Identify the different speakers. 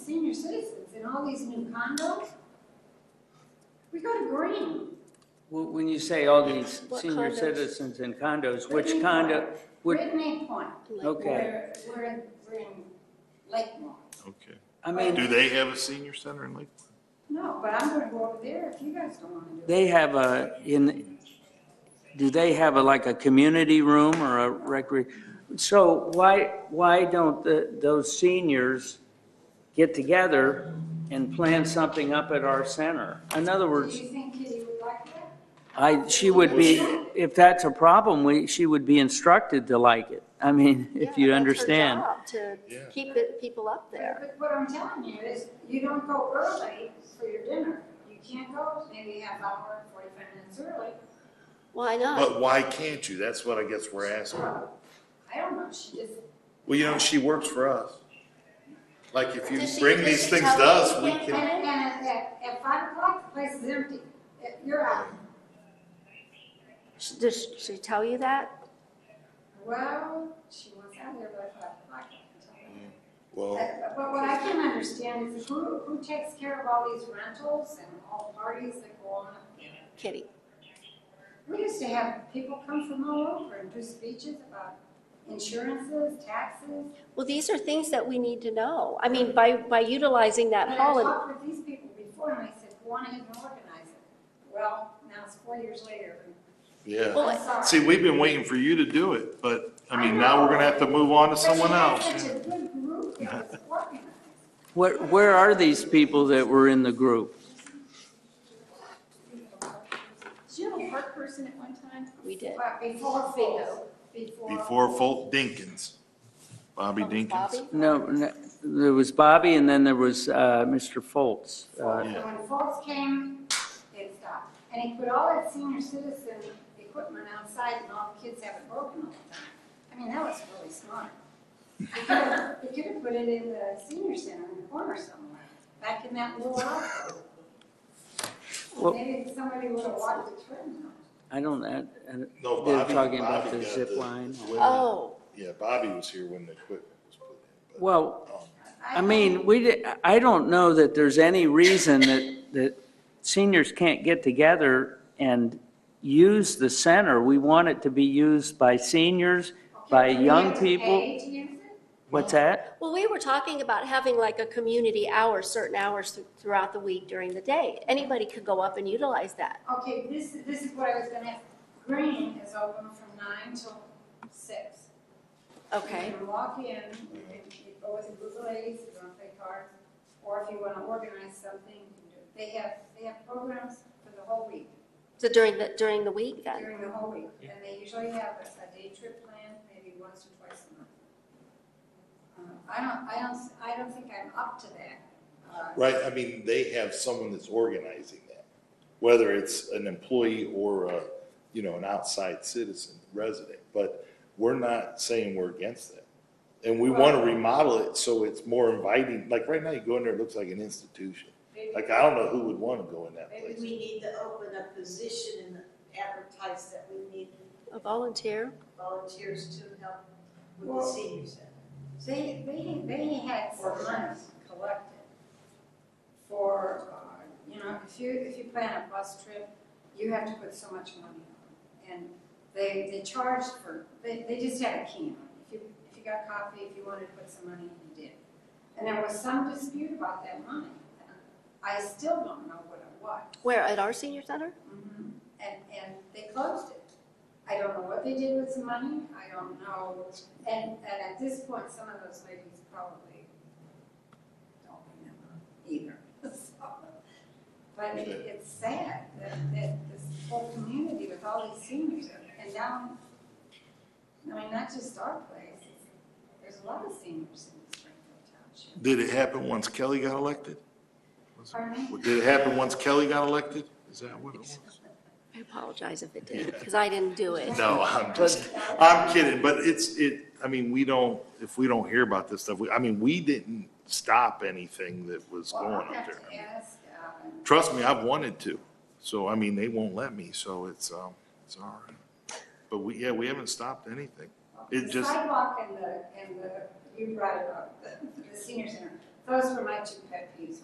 Speaker 1: citizens in all these new condos. We go to green.
Speaker 2: Wh- When you say all these
Speaker 3: What
Speaker 2: senior
Speaker 3: condos?
Speaker 2: citizens in condos, which
Speaker 1: Brittany
Speaker 2: condo,
Speaker 1: Point,
Speaker 2: which,
Speaker 1: Brittany Point,
Speaker 2: okay,
Speaker 1: where, where we're in Lakemore.
Speaker 4: Okay.
Speaker 2: I mean,
Speaker 4: Do they have a senior center in Lakeland?
Speaker 1: No, but I'm gonna go over there if you guys don't wanna do it.
Speaker 2: they have a, in, do they have a, like a community room or a recre? So why, why don't the, those seniors get together and plan something up at our center? In other
Speaker 1: Do
Speaker 2: words,
Speaker 1: you think Kitty would like that?
Speaker 2: I, she would be, if that's a problem, we, she would be instructed to like it. I mean, if you understand.
Speaker 3: To
Speaker 4: Yeah.
Speaker 3: keep it- people up there.
Speaker 1: But what I'm telling you is, you don't go early for your dinner. You can't go maybe half hour, forty-five minutes early.
Speaker 3: Why not?
Speaker 4: But why can't you? That's what I guess we're asking.
Speaker 1: I don't know, she just,
Speaker 4: Well, you know, she works for us. Like if you
Speaker 3: Does she-
Speaker 4: bring
Speaker 3: does
Speaker 4: these
Speaker 3: she
Speaker 4: things
Speaker 3: tell
Speaker 4: to
Speaker 3: you
Speaker 4: us,
Speaker 3: you
Speaker 4: we
Speaker 3: can't
Speaker 1: and,
Speaker 4: can.
Speaker 1: and at, at- at five o'clock, the place is empty. Uh, You're out.
Speaker 3: Sh- Does she tell you that?
Speaker 1: Well, she wants out of there by five o'clock. I can tell you.
Speaker 4: Well,
Speaker 1: But but what I can understand is who, who takes care of all these rentals and all parties that go on?
Speaker 3: Kitty,
Speaker 1: We used to have people come from all over and do speeches about insurances, taxes.
Speaker 3: well, these are things that we need to know. I mean, by, by utilizing that
Speaker 1: But
Speaker 3: hall
Speaker 1: I
Speaker 3: and,
Speaker 1: talked with these people before and I said, go on ahead and organize it. Well, now it's four years later.
Speaker 4: yeah.
Speaker 3: Well,
Speaker 1: I'm sorry.
Speaker 4: See, we've been waiting for you to do it, but I mean, now we're gonna have to move on to
Speaker 1: But
Speaker 4: someone
Speaker 1: you had
Speaker 4: else.
Speaker 1: Such a good group that was organized.
Speaker 2: Where, where are these people that were in the group?
Speaker 1: Did you have a park person at one time?
Speaker 3: we did.
Speaker 1: But before Folds, before.
Speaker 4: Before Folt Dinkins, Bobby Dinkins.
Speaker 3: Oh, Bobby?
Speaker 2: No, no, there was Bobby and then there was uh, Mr. Foltz. Uh,
Speaker 1: And when folks came, it stopped. And he put all that senior citizen equipment outside and all the kids have it broken all the time. I mean, that was really smart. He could have, he could have put it in the senior center in the corner somewhere, back in that little office.
Speaker 2: Well-
Speaker 1: Maybe somebody would have walked the trail.
Speaker 2: I don't, I- I-
Speaker 4: No,
Speaker 2: they're
Speaker 4: Bobby-
Speaker 2: talking about
Speaker 4: Bobby
Speaker 2: the
Speaker 4: got
Speaker 2: zip
Speaker 4: the-
Speaker 2: line.
Speaker 3: Oh,
Speaker 4: Yeah, Bobby was here when the equipment was put in.
Speaker 2: Well,
Speaker 4: but, um,
Speaker 2: I mean, we, di- I don't know that there's any reason that, that seniors can't get together and use the center. We want it to be used by seniors, by
Speaker 1: Okay, do we
Speaker 2: young
Speaker 1: have to
Speaker 2: people.
Speaker 1: pay to use it?
Speaker 2: What's that?
Speaker 3: well, we were talking about having like a community hour, certain hours thr- throughout the week during the day. Anybody could go up and utilize that.
Speaker 1: Okay, this, this is what I was gonna ask. Green is open from nine till six. You
Speaker 3: Okay,
Speaker 1: can walk in, you can you go with a group of ladies, if you wanna play cards, or if you wanna organize something, you can do it. They have, they have programs for the whole week,
Speaker 3: so during the, during the week then?
Speaker 1: during the whole week. And they usually have a, a day trip planned, maybe once or twice a month. Uh, I don't, I don't, s- I don't think I'm up to that. Uh,
Speaker 4: Right, I mean, they have someone that's organizing that, whether it's an employee or a, you know, an outside citizen, resident. But we're not saying we're against that. And we want to remodel it so it's more inviting, like right now you go in there, it looks like an institution.
Speaker 1: maybe-
Speaker 4: Like, I don't know who would want to go in that
Speaker 5: Maybe
Speaker 4: place.
Speaker 5: we need to open a position and advertise that we need
Speaker 3: A volunteer?
Speaker 5: volunteers to help with the
Speaker 1: Well-
Speaker 5: senior center.
Speaker 1: They, they, they had some money collected for, uh, you know, if you, if you plan a bus trip, you have to put so much money on. it. And they, they charged for, they, they just had a can. If you, if you got coffee, if you wanted to put some money in, you did. And there was some dispute about that money. I still don't know what it was.
Speaker 3: Where, at our senior center?
Speaker 1: Mhm. And, and they closed it. I don't know what they did with the money, I don't know. And, and at this point, some of those ladies probably don't remember either. So, But it- it's sad that, that this whole community with all these seniors are- and now, I mean, not just our place, it's- there's a lot of seniors in Springfield Township.
Speaker 4: Did it happen once Kelly got elected? Was it-
Speaker 1: Pardon me?
Speaker 4: Did it happen once Kelly got elected? Is that what it was?
Speaker 3: I apologize if it did, because I didn't do it.
Speaker 4: No, I'm just, I'm kidding, but it's, it, I mean, we don't, if we don't hear about this stuff, we, I mean, we didn't stop anything that was
Speaker 1: Well,
Speaker 4: going
Speaker 1: I'll
Speaker 4: up
Speaker 1: have to
Speaker 4: there.
Speaker 1: ask, uh,
Speaker 4: Trust me, I've wanted to, so, I mean, they won't let me, so it's, um, it's all right. But we, yeah, we haven't stopped anything. It
Speaker 1: The
Speaker 4: just-
Speaker 1: Sidewalk and the, and the, you brought it up, the, the senior center, Those were my two pet peeves.